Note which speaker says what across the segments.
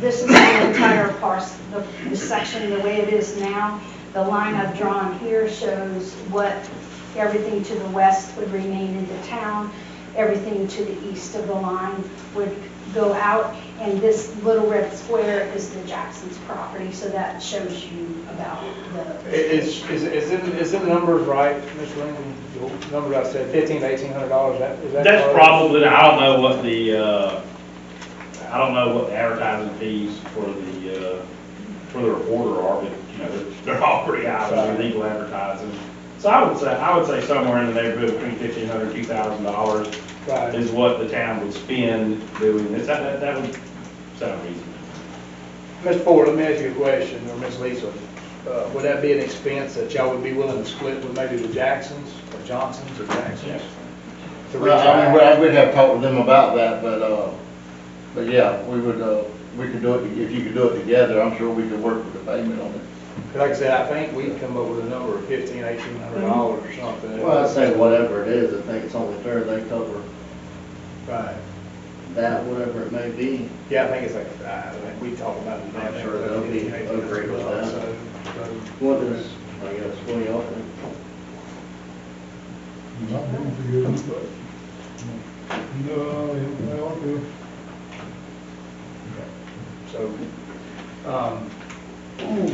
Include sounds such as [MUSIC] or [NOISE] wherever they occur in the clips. Speaker 1: this is the entire parcel, the- the section, the way it is now. The line I've drawn here shows what everything to the west would remain in the town, everything to the east of the line would go out, and this little red square is the Jackson's property, so that shows you about
Speaker 2: I-
Speaker 1: the.
Speaker 2: Is, is, is it, is it numbers right, Mr. Lincoln? The number I said, fifteen to eighteen hundred dollars, that, is that?
Speaker 3: That's
Speaker 2: correct?
Speaker 3: probably, I don't know what the, uh, I don't know what the advertising fees for the, uh, for the reporter are, but, you know, they're- they're all pretty high, for legal advertising. So I would say, I would say somewhere in the neighborhood between fifteen hundred, two thousand dollars
Speaker 2: Right.
Speaker 3: is what the town would spend doing this. That, that- that would sound reasonable.
Speaker 2: Mr. Ford, let me ask you a question, or Ms. Lisa. Uh, would that be an expense that y'all would be willing to split with maybe the Jacksons, or Johnsons, or Jacksons? To reach
Speaker 4: Well, I mean,
Speaker 2: out?
Speaker 4: well, we'd have talked with them about that, but, uh, but yeah, we would, uh, we could do it, if you could do it together, I'm sure we could work with the payment on it.
Speaker 2: Like I said, I think we'd come up with a number of fifteen, eighteen
Speaker 3: Mm-hmm.
Speaker 2: hundred dollars or something.
Speaker 4: Well, I'd say whatever it is, I think it's only fair they cover
Speaker 2: Right.
Speaker 4: that, whatever it may be.
Speaker 2: Yeah, I think it's like, I think we talked about it.
Speaker 4: I'm sure they'll be okay with that.
Speaker 2: So, so-
Speaker 4: What is, I guess, what do y'all think?
Speaker 5: Not doing for you, but, no, yeah, well, do.
Speaker 2: So, um,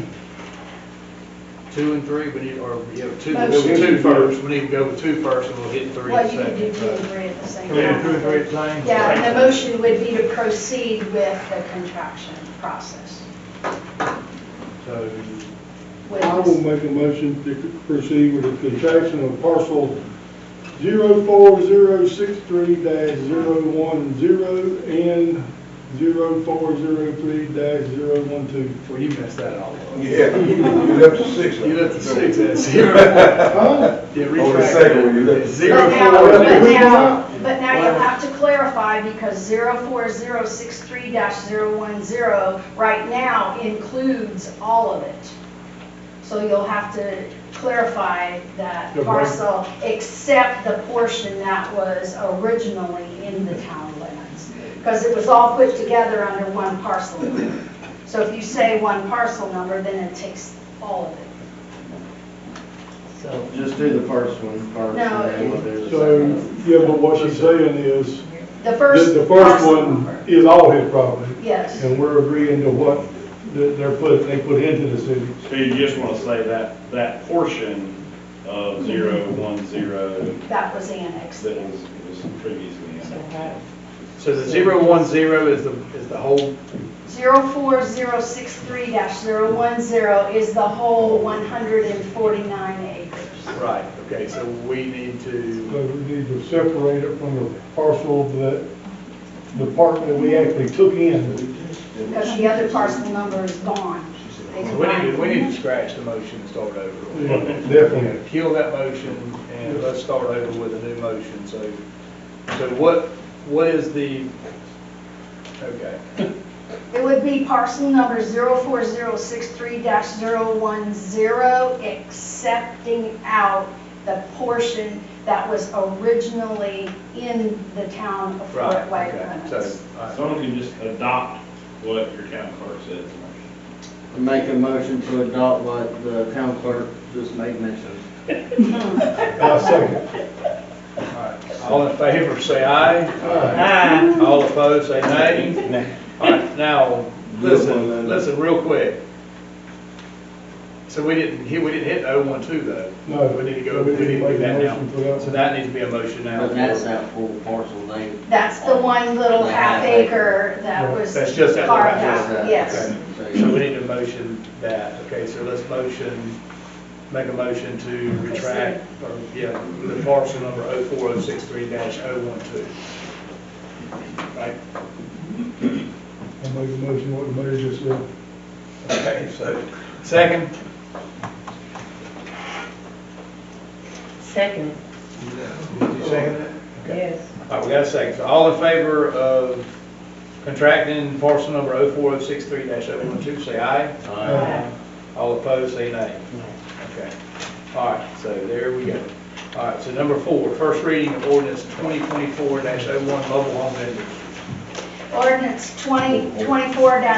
Speaker 2: two and three, we need, or, yeah, two, we'll go with two first, we need to go with two first, and we'll hit three in
Speaker 1: Well,
Speaker 2: a
Speaker 1: you can do
Speaker 2: second.
Speaker 1: two and three at the same
Speaker 2: Can
Speaker 1: time.
Speaker 2: we do two and three at the same?
Speaker 1: Yeah, and the motion would be to proceed with the contraction process.
Speaker 2: So,
Speaker 1: with
Speaker 5: I
Speaker 1: this-
Speaker 5: will make a motion to proceed with the contraction of parcel zero four zero six three dash zero one zero and zero four zero three dash zero one two.
Speaker 2: well, you messed that all up.
Speaker 6: Yeah, you left the six.
Speaker 2: You left the six at zero. Yeah,
Speaker 6: On the
Speaker 2: retract
Speaker 6: second one,
Speaker 2: that.
Speaker 6: you left. the six.
Speaker 2: Zero
Speaker 1: But now,
Speaker 2: four,
Speaker 1: but
Speaker 2: we-
Speaker 1: now, but now you'll have to clarify because zero four zero six three dash zero one zero right now includes all of it. So you'll have to clarify that
Speaker 5: Okay.
Speaker 1: parcel, except the portion that was originally in the town limits. Because it was all put together under one parcel number. So if you say one parcel number, then it takes all of it.
Speaker 4: So [LAUGHS] just do the first one first,
Speaker 1: No,
Speaker 4: and then we'll do the
Speaker 5: So,
Speaker 4: second one.
Speaker 5: yeah, but what she's saying is,
Speaker 1: The
Speaker 5: that
Speaker 1: first.
Speaker 5: the first
Speaker 1: parcel
Speaker 5: one
Speaker 1: number.
Speaker 5: is all his property.
Speaker 1: Yes.
Speaker 5: And we're agreeing to what th- they're put, they put into the city.
Speaker 3: So you just want to say that, that portion of zero, one, zero,
Speaker 1: That was annexed.
Speaker 3: that was, was previously in there.
Speaker 2: so the zero one zero is the, is the whole,
Speaker 1: 04063-010 is the whole 149 acres.
Speaker 2: right, okay, so we need to,
Speaker 5: So we need to separate it from the parcel that, the part that we actually took in.
Speaker 1: Because the other parcel number is gone. They
Speaker 2: we need to, we
Speaker 1: combined.
Speaker 2: need to scratch the motion and start over.
Speaker 5: Yeah,
Speaker 2: We're
Speaker 5: Definitely.
Speaker 2: gonna kill that motion and let's start over with a new motion, so, so what, what is the, okay,
Speaker 1: It would be parcel number 04063-010, accepting out the portion that was originally in the town of
Speaker 2: right,
Speaker 1: Fort White
Speaker 2: okay, so,
Speaker 1: limits.
Speaker 2: all right.
Speaker 3: uh, Someone can just adopt what your town clerk says.
Speaker 4: Make a motion to adopt what the town clerk just made mention.
Speaker 5: I second.
Speaker 2: all right. All in favor, say aye. All opposed, say nay. All right, now, listen, listen real quick. So we didn't, hit- we didn't hit oh one two though.
Speaker 5: No.
Speaker 2: We need to go, we
Speaker 5: We
Speaker 2: need to do
Speaker 5: didn't make a
Speaker 2: that
Speaker 5: motion for
Speaker 2: now.
Speaker 5: that.
Speaker 2: So that needs to be a motion now.
Speaker 4: But that's that full parcel they
Speaker 1: That's the one little half acre that was
Speaker 2: That's just that little
Speaker 1: carved
Speaker 2: half
Speaker 1: out, yes.
Speaker 2: So we need to motion that, okay, so let's motion, make a motion to retract, or, yeah, the parcel number 04063 012. Right,
Speaker 5: I make a motion, what the mayor just said.
Speaker 2: okay, so, second,
Speaker 7: Second,
Speaker 2: did you second it? Okay.
Speaker 7: yes.
Speaker 2: All right, we got a second, so all in favor of contracting parcel number 04063 012, say aye. All opposed, say nay. Okay. All right, so there we go. All right, so number four, first reading of ordinance 2024-01 mobile home vendors.
Speaker 1: Ordinance 2024-01